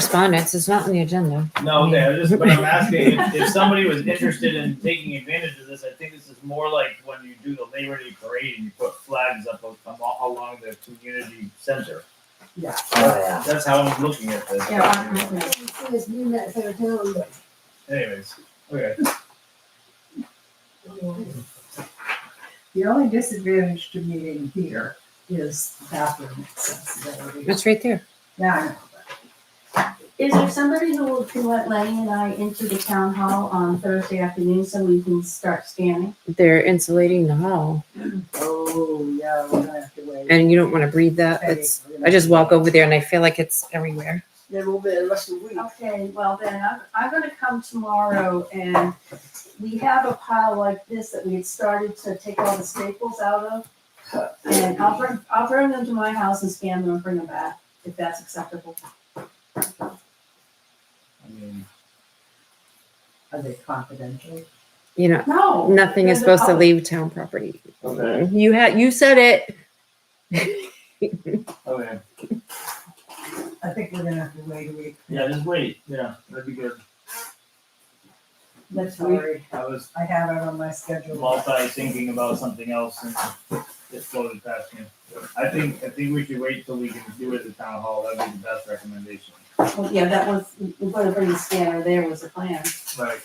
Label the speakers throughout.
Speaker 1: correspondence, it's not on the agenda.
Speaker 2: No, okay, I just, but I'm asking, if, if somebody was interested in taking advantage of this, I think this is more like when you do the Labor Day parade and you put flags up a- a- along the community center.
Speaker 3: Yeah.
Speaker 2: That's how I'm looking at this.
Speaker 3: Yeah.
Speaker 4: Says you met their town, but
Speaker 2: Anyways, okay,
Speaker 3: The only disadvantage to meeting here is bathroom accessibility.
Speaker 1: It's right there.
Speaker 3: Yeah, I know,
Speaker 5: Is there somebody who will, who let Lenny and I into the town hall on Thursday afternoon so we can start scanning?
Speaker 1: They're insulating the hall
Speaker 3: but- oh, yeah, we're gonna have to wait.
Speaker 1: and you don't want to breathe that.
Speaker 3: Hey,
Speaker 1: It's,
Speaker 3: we're gonna-
Speaker 1: I just walk over there and I feel like it's everywhere.
Speaker 6: Then we'll be the rest of the week.
Speaker 5: Okay, well then, I'm, I'm gonna come tomorrow and we have a pile like this that we had started to take all the staples out of. And I'll bring, I'll bring them to my house and scan them and bring them back, if that's acceptable.
Speaker 2: I mean,
Speaker 3: Are they confidential?
Speaker 1: You know,
Speaker 5: No.
Speaker 1: nothing is
Speaker 5: they're the
Speaker 1: supposed to
Speaker 5: public.
Speaker 1: leave town property.
Speaker 2: okay,
Speaker 1: You had, you said it.
Speaker 2: okay,
Speaker 3: I think we're gonna have to wait a week.
Speaker 2: yeah, just wait, yeah, that'd be good,
Speaker 3: That's sorry.
Speaker 2: I was
Speaker 3: I have it on my schedule.
Speaker 2: multi-thinking about something else and it floated past me. I think, I think we should wait till we can do it at the town hall, that'd be the best recommendation.
Speaker 5: Well, Yeah, that was, we're gonna bring the scanner, there was the plan.
Speaker 2: Right.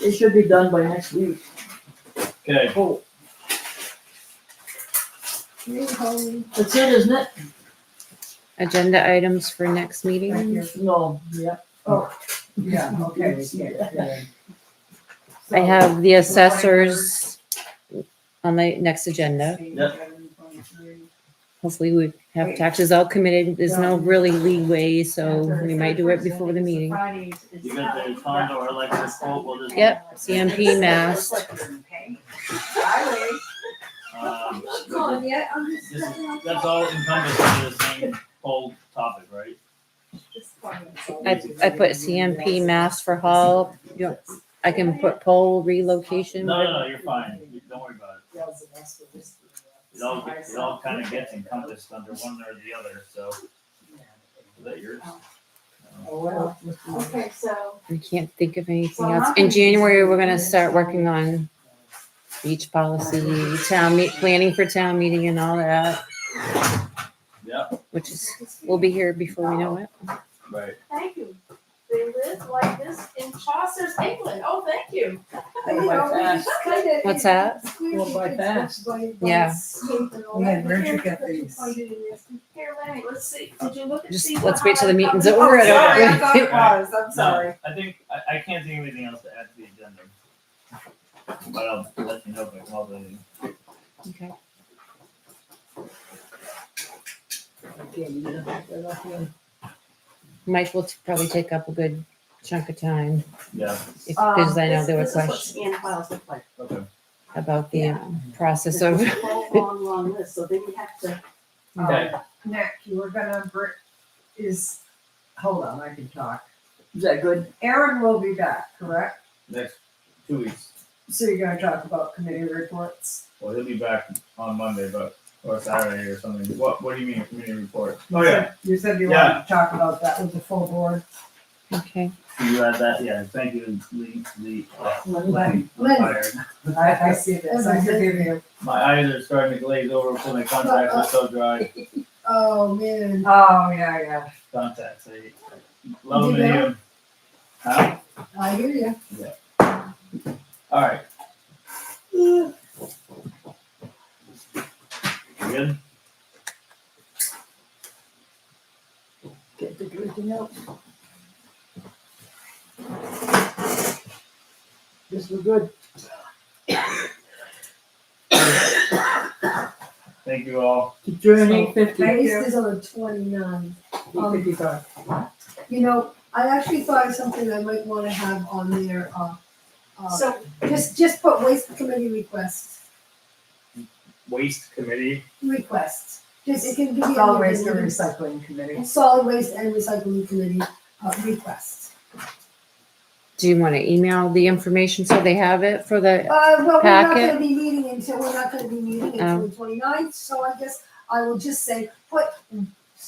Speaker 6: It should be done by next week.
Speaker 2: Okay,
Speaker 6: Oh,
Speaker 4: you hold
Speaker 6: that's it, isn't it?
Speaker 1: Agenda items for next
Speaker 3: Right
Speaker 1: meeting.
Speaker 3: here.
Speaker 6: No, yep.
Speaker 3: Oh. Yeah, okay, yeah, yeah.
Speaker 1: I have the assessors on the next agenda. Hopefully we have taxes all committed. There's no really leeway, so we might do it before the meeting.
Speaker 5: Friday is- is-
Speaker 2: you got the condo or electric quote, we'll just.
Speaker 1: Yep, CMP mass.
Speaker 2: um,
Speaker 4: on yet, I'm just.
Speaker 2: This is, that's all encompassed under the same whole topic, right?
Speaker 1: I, I put CMP mass for hall. You don't- I can put pole relocation.
Speaker 2: No, no, no, you're fine, You- don't worry about it, it all, gets- it all kinda gets encompassed under one or the other, so, is that yours?
Speaker 3: Oh, well.
Speaker 4: Okay, so
Speaker 1: I can't think of anything else. In January, we're gonna start working on beach policy, town meet, planning for town meeting and all that.
Speaker 2: Yeah.
Speaker 1: Which is, we'll be here before we know it.
Speaker 2: Right.
Speaker 5: Thank you. They live like this in Chaucer's England. Oh, thank you.
Speaker 4: You know, we just kinda-
Speaker 1: What's that?
Speaker 4: Squeeze
Speaker 6: Well, by
Speaker 4: it,
Speaker 6: fast.
Speaker 4: by- by
Speaker 1: Yeah.
Speaker 4: escape and all
Speaker 3: We had
Speaker 4: that.
Speaker 3: Richard get
Speaker 4: Put your
Speaker 3: these.
Speaker 4: point in this.
Speaker 5: Here, Lenny, let's see. Did you look at?
Speaker 1: Just
Speaker 5: these
Speaker 1: let's wait till the
Speaker 5: behind
Speaker 1: meeting's
Speaker 5: the-
Speaker 1: over.
Speaker 5: Oh, sorry.
Speaker 1: I
Speaker 3: thought
Speaker 2: it was.
Speaker 3: I'm
Speaker 2: No, I think, I, I can't think of anything else to add to the agenda. But I'll let you know if I call the,
Speaker 1: Okay.
Speaker 6: Okay, you did that off here.
Speaker 1: Mike will t- probably take up a good chunk of time
Speaker 2: yeah,
Speaker 1: if,
Speaker 5: Um,
Speaker 1: because I know
Speaker 5: this-
Speaker 1: there were
Speaker 5: this is what
Speaker 1: questions
Speaker 5: Scan files look like.
Speaker 2: okay.
Speaker 1: about the um, process
Speaker 5: This
Speaker 1: of.
Speaker 5: is a whole long, long list, so then you have to.
Speaker 2: Okay.
Speaker 3: Nick, you were gonna, br- is, hold on, I can talk.
Speaker 6: Is that good?
Speaker 3: Aaron will be back, correct?
Speaker 2: Next two weeks.
Speaker 3: So you're gonna talk about committee reports?
Speaker 2: Well, he'll be back on Monday, but or Saturday or something. What What do you mean community report?
Speaker 3: You said you
Speaker 2: Oh, Yeah.
Speaker 3: wanted to talk about that with the full board.
Speaker 1: Okay,
Speaker 2: Can you add that? Yeah. Thank you, Lee. Lee. uh,
Speaker 3: Lynn,
Speaker 2: I'm tired.
Speaker 3: I, I see this, I forgive you.
Speaker 2: My eyes are starting to glaze over from the contacts are so dry.
Speaker 4: Oh, man.
Speaker 3: Oh, yeah, yeah.
Speaker 2: Contacts. I love them. and hate them. Huh?
Speaker 4: I hear you.
Speaker 2: All right. You good?
Speaker 6: Get the drinking out. This was good.
Speaker 2: Thank you all.
Speaker 6: The journey fifty.
Speaker 3: Thank you.
Speaker 4: Based is on the twenty-nine.
Speaker 6: Fifty-five.
Speaker 4: You know, I actually thought of something I might wanna have on there, uh, uh,
Speaker 5: So
Speaker 4: just, just put waste committee requests.
Speaker 2: Waste committee.
Speaker 4: request. Just, it can be.
Speaker 3: Solid waste and
Speaker 4: anything.
Speaker 3: recycling committee.
Speaker 4: Solid waste and recycling committee, uh, request.
Speaker 1: do you want to email the information so they have it for the,
Speaker 4: Uh, well, we're not
Speaker 1: Packet.
Speaker 4: gonna be meeting until, we're not gonna be meeting until
Speaker 1: Oh.
Speaker 4: the 29th. so I guess I will just say, put